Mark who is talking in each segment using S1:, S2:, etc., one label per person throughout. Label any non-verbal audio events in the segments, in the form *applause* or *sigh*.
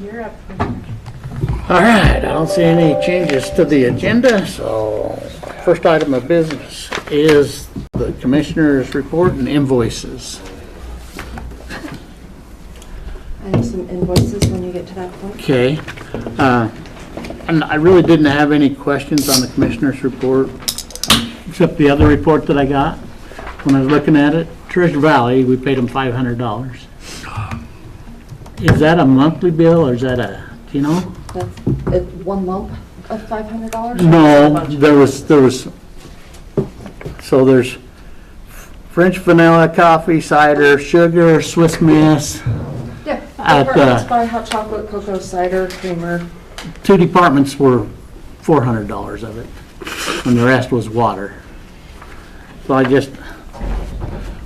S1: You're up. Commissioner.
S2: All right, I don't see any changes to the agenda, so first item of business is the commissioner's report and invoices.
S1: I have some invoices when you get to that point.
S2: Okay. uh, And I really didn't have any questions on the commissioner's report, except the other report that I got. When I was looking at it, Treasure Valley, we paid them $500. Is that a monthly bill or is that a, do you know?
S1: That's uh, one lump of $500?
S2: No, there was, there was, so there's French vanilla, coffee, cider, sugar, Swiss Miss,
S1: Yeah.
S2: At uh, the-
S1: Departments by hot chocolate, cocoa, cider, creamer.
S2: two departments were four hundred dollars of it, and the rest was water. So I just,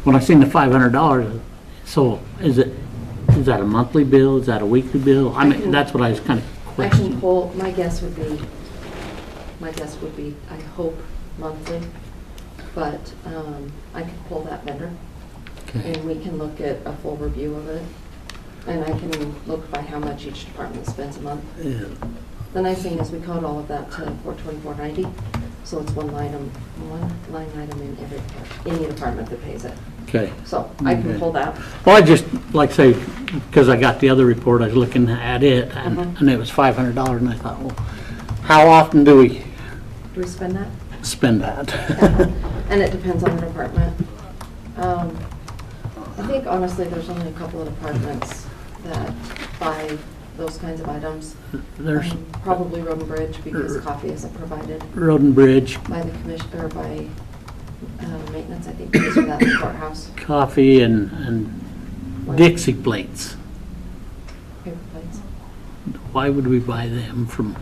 S2: when I seen the five hundred dollars, so is it, is that a monthly bill, is that a weekly bill? I mean, that's what I was kind of
S1: I can
S2: questioning.
S1: pull, my guess would be, my guess would be, I hope monthly, but um, I can pull that vendor
S2: Okay.
S1: and we can look at a full review of it. And I can look by how much each department spends a month.
S2: Yeah.
S1: The nice thing is we code all of that to four twenty-four ninety, so it's one line, item- one line item in every, any department that pays it.
S2: Okay.
S1: So I
S2: Okay.
S1: can pull that.
S2: Well, I just, like I say, because I got the other report, I was looking at it, and
S1: Mhm.
S2: and it was $500, and I thought, well, how often do we
S1: Do we spend that?
S2: spend that?
S1: *laughs* And it depends on the department. Um, I think honestly, there's only a couple of departments that buy those kinds of items.
S2: *laughs* There's Er,
S1: Um, Probably Road and Bridge because coffee isn't provided
S2: Road and Bridge,
S1: by the commission, or by uh, maintenance, I think, because of that *coughs* courthouse.
S2: coffee, and and
S1: like
S2: Dixie plates.
S1: paper plates.
S2: Why would we buy them from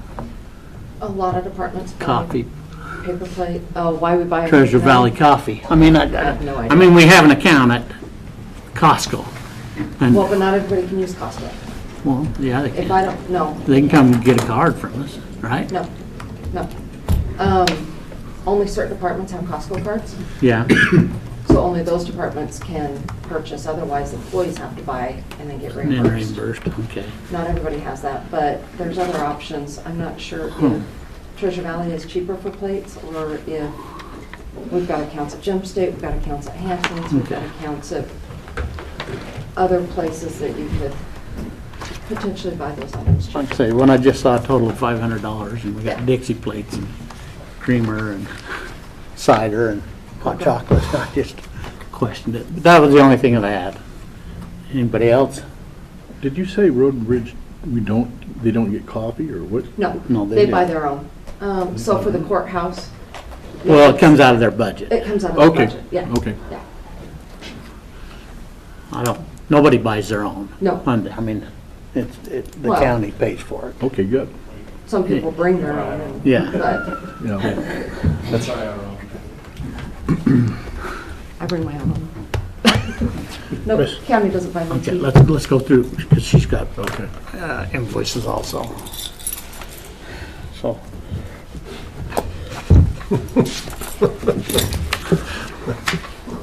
S1: A lot of departments buy
S2: Coffee,
S1: paper plate, oh, why we buy.
S2: Treasure
S1: them.
S2: Valley Coffee? I mean, I,
S1: have no
S2: I- I
S1: idea.
S2: mean, we have an account at Costco, and,
S1: Well, but not everybody can use Costco.
S2: well, yeah, they
S1: If I
S2: can,
S1: don't, no,
S2: they can come get a card from us, right?
S1: no, no. Um, Only certain departments have Costco cards. *coughs*
S2: Yeah,
S1: So only those departments can purchase, otherwise employees have to buy and then get
S2: and then
S1: reimbursed.
S2: reimbursed, okay.
S1: Not everybody has that, but there's other options. I'm not sure if Treasure Valley is cheaper for plates or if we've got accounts at Gem State, we've got accounts at Hanson's, we've got
S2: Okay.
S1: accounts at other places that you could potentially buy those items cheaper.
S2: Like I say, when I just saw a total of five hundred dollars, and we got
S1: Yeah.
S2: Dixie plates and creamer and cider and hot chocolate, *laughs* I just questioned it. But That was the only thing that I had. Anybody else?
S3: Did you say Road and Bridge, we don't, they don't get coffee, or what?
S2: No,
S1: No,
S2: they
S1: they buy
S2: do.
S1: their own. Um, So for the courthouse.
S2: Well, it comes out of their budget.
S1: It comes out of the
S3: Okay,
S1: budget, yeah.
S3: okay.
S1: Yeah.
S2: I don't, nobody buys their own.
S1: No.
S2: And, I mean, it's, it, the
S1: Well-
S2: county pays for it.
S3: Okay, good.
S1: Some people bring their own. and-
S2: Yeah,
S1: But
S3: Yeah.
S1: I bring my own. *laughs* No, county doesn't buy my
S2: okay,
S1: tea.
S2: let's, let's go through, because she's got
S3: Okay.
S2: uh, invoices also. So,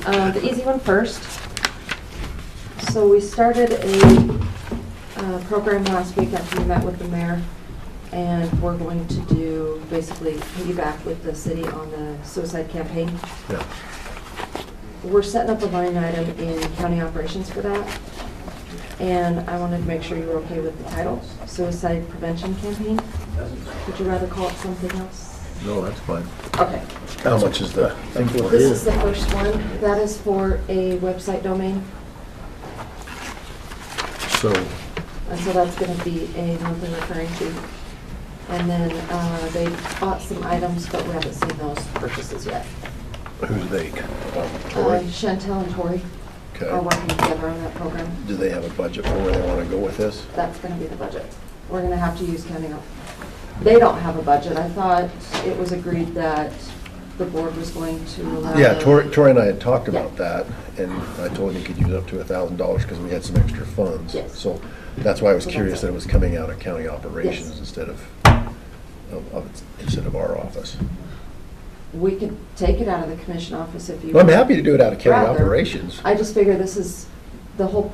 S1: Uh, The easy one first. So we started a uh, program last week after we met with the mayor, and we're going to do, basically piggyback with the city on the suicide campaign.
S3: Yeah.
S1: We're setting up a line item in county operations for that, and I wanted to make sure you were okay with the title, suicide prevention campaign. Would you rather call it something else?
S3: No, that's fine.
S1: Okay.
S3: How much is that?
S1: This is the first one. That is for a website domain,
S3: So,
S1: and so that's going to be a monthly recurring fee. And then uh, they bought some items, but we haven't seen those purchases yet.
S4: Who's they? Um,
S1: Uh,
S4: Tory?
S1: Chantel and Tori are
S4: Okay.
S1: working together on that program.
S4: Do they have a budget for where they want to go with this?
S1: That's going to be the budget. We're going to have to use county. op- They don't have a budget. I thought it was agreed that the board was going to allow.
S4: Yeah,
S1: them-
S4: Tori, Tori and I had talked about
S1: Yeah.
S4: that, and I told him he could use up to a thousand dollars because we had some extra funds.
S1: Yes.
S4: So that's why I was
S1: So that's
S4: curious
S1: it.
S4: that it was coming out of county operations
S1: Yes.
S4: instead of, of, of- instead of our office.
S1: We could take it out of the commission office if you.
S4: Well, I'm happy to do it out of county
S1: Rather.
S4: operations.
S1: I just figure this is, the whole point